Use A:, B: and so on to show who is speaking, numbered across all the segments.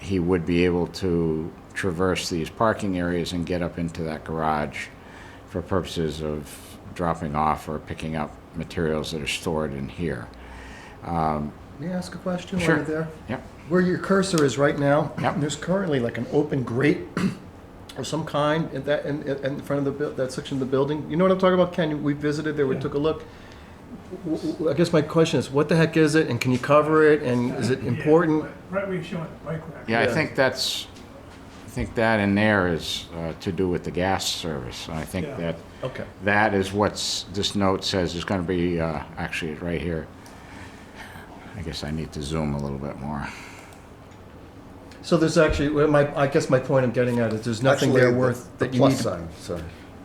A: he would be able to traverse these parking areas and get up into that garage for purposes of dropping off or picking up materials that are stored in here.
B: May I ask a question while
A: Sure.
B: you're there?
A: Yep,
B: Where your cursor is right now,
A: Yep.
B: there's currently like an open grate of some kind in that, in, in- in front of the, buil- that section of the building. You know what I'm talking about, Ken? We visited there, we took a look. W- w- I guess my question is, what the heck is it, and can you cover it, and is it important?
C: Right where you're showing the bike rack.
A: yeah, I
B: Yeah.
A: think that's, I think that in there is uh, to do with the gas service. And I think
C: Yeah.
A: that,
B: Okay.
A: that is what's, this note says is gonna be, uh, actually, it's right here. I guess I need to zoom a little bit more.
B: So there's actually, well, my, I guess my point I'm getting at is there's nothing there
D: Actually, the-
B: worth
D: the
B: that you
D: plus
B: need. to-
D: sign. Sorry,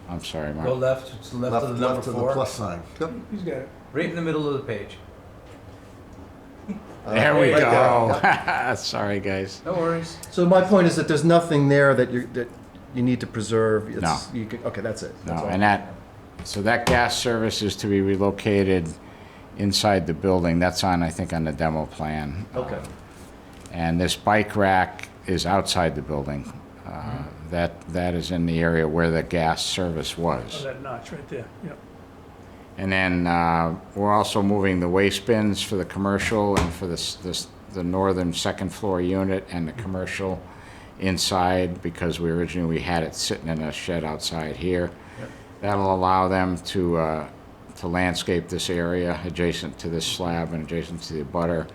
A: I'm sorry,
E: Go
A: Mark.
E: left, to the left of the number
D: left of the
E: four,
D: plus sign. Yep.
C: He's got it.
E: right in the middle of the page.
A: There we
D: right
A: go. Sorry, guys.
E: No worries.
B: So my point is that there's nothing there that you, that you need to preserve. It's- you can- Okay, that's it.
A: No,
B: That's all.
A: and that, so that gas service is to be relocated inside the building. That's on, I think, on the demo plan.
B: Okay.
A: And this bike rack is outside the building. Uh,
B: Mm-hmm.
A: That, that is in the area where the gas service
C: Oh,
A: was.
C: that notch right there, yep.
A: And then uh, we're also moving the waste bins for the commercial and for this, this, the northern second floor unit and the commercial inside because we originally, we had it sitting in a shed outside here. That'll allow them to, uh, to landscape this area adjacent to this slab and adjacent to the butter.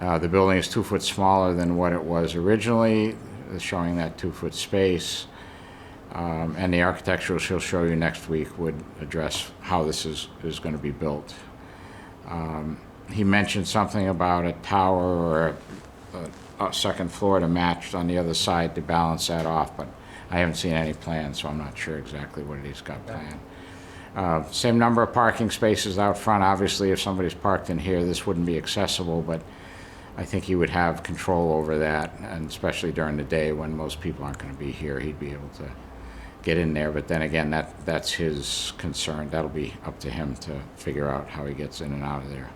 A: Uh, The building is two foot smaller than what it was originally, showing that two foot space. Um, And the architectural she'll show you next week would address how this is, is going to be built. Um, He mentioned something about a tower or a- a, a second floor to match on the other side to balance that off, but I haven't seen any plans, so I'm not sure exactly what it is got planned. Uh, Same number of parking spaces out front. Obviously, if somebody's parked in here, this wouldn't be accessible, but I think he would have control over that, and especially during the day when most people aren't going to be here, he'd be able to get in there. But then again, that, that's his concern. That'll be up to him to figure out how he gets in and out of there.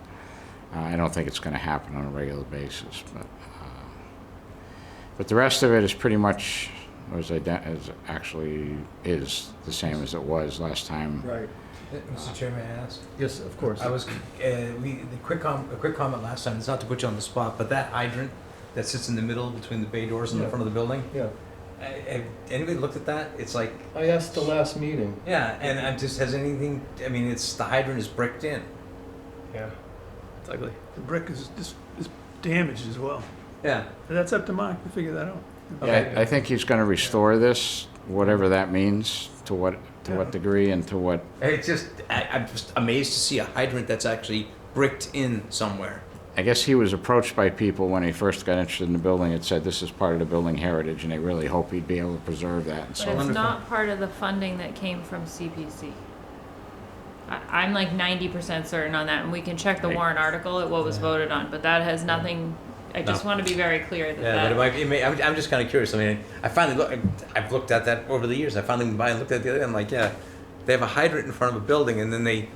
A: Uh, I don't think it's going to happen on a regular basis, but, uh, but the rest of it is pretty much, was ident, is actually, is the same as it was last time.
B: Right.
E: Uh, Mr. Chairman, I ask?
B: Yes, of course.
E: I was, uh, we, the quick com, a quick comment last time, it's not to put you on the spot, but that hydrant that sits in the middle between the bay doors and the
B: Yeah.
E: front of the building,
B: Yeah.
E: uh, have anybody looked at that? It's like,
B: I asked the last meeting.
E: yeah, and I'm just, has anything, I mean, it's, the hydrant is bricked in.
F: Yeah, it's ugly.
C: The brick is just, is damaged as well.
E: Yeah.
C: But That's up to Mark to figure that out.
A: Yeah, I I think he's going to restore this, whatever that means, to what, to what
C: Yeah.
A: degree and to what,
E: It's just, I, I'm just amazed to see a hydrant that's actually bricked in somewhere.
A: I guess he was approached by people when he first got interested in the building that said, this is part of the building heritage, and they really hope he'd be able to preserve that. And
G: But
A: so,
G: it's
E: wonderful.
G: not part of the funding that came from CPC. I, I'm like ninety percent certain on that, and we can check the
A: Right.
G: warrant article at what was voted on, but that has nothing, I just
E: No.
G: wanna be very clear
E: Yeah, but
G: that
E: it
G: that.
E: might, it may, I'm, I'm just kind of curious. I mean, I finally look, I've looked at that over the years. I finally went by and looked at the other. I'm like, yeah, they have a hydrant in front of a building, and then they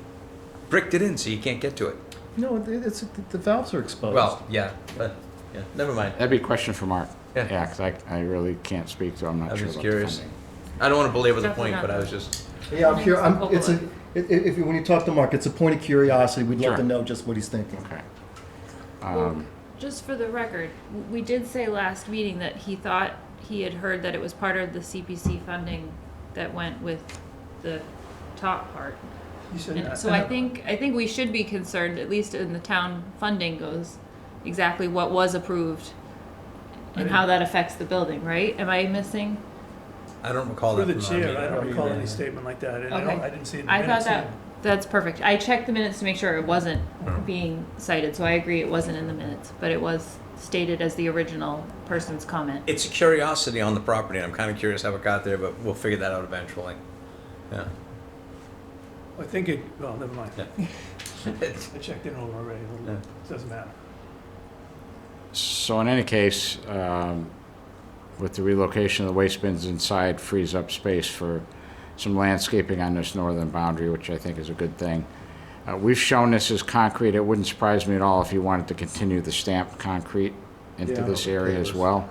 E: bricked it in so you can't get to it.
B: No, it- it's, the valves are
C: Oh,
B: exposed.
E: Well, yeah, but yeah, never mind.
A: that'd be a question for Mark.
E: Yeah.
A: Yeah, because I, I really can't speak to, I'm
E: I
A: not
E: was
A: sure
E: just
A: about the
E: curious.
A: funding.
E: I don't want to belabor the
G: Definitely
E: point, but
G: not.
E: I was just
B: Yeah, I'm curious, I'm,
G: Overlook.
B: it's a, i- i- if, when you talk to Mark, it's a point of curiosity, we'd love to
A: Sure.
B: know just what he's thinking.
A: Okay.
G: Well,
A: Um,
G: Just for the record, w- we did say last meeting that he thought he had heard that it was part of the CPC funding that went with the top part.
C: He said
G: And
C: that.
G: so I think, I think we should be concerned, at least in the town funding goes, exactly what was approved and how that affects the building, right? Am I missing?
E: I don't recall
C: Through
E: that.
C: the
E: from our
C: chair,
E: meeting.
C: I don't recall any
E: Yeah.
C: statement like that, and I don't,
G: Okay.
C: I didn't see it in the
G: I thought
C: minutes
G: that,
C: either.
G: that's perfect. I checked the minutes to make sure it wasn't
C: Oh.
G: being cited, so I agree it wasn't in the minutes, but it was stated as the original person's comment.
E: It's a curiosity on the property, and I'm kind of curious how it got there, but we'll figure that out eventually. Yeah.
C: I think it, well, never mind.
E: Yeah.
C: I checked in over already, a little bit. doesn't matter.
A: So in any case, um, with the relocation of the waste bins inside frees up space for some landscaping on this northern boundary, which I think is a good thing. Uh, We've shown this as concrete. It wouldn't surprise me at all if you wanted to continue the stamped concrete into
B: Yeah.
A: this area as well.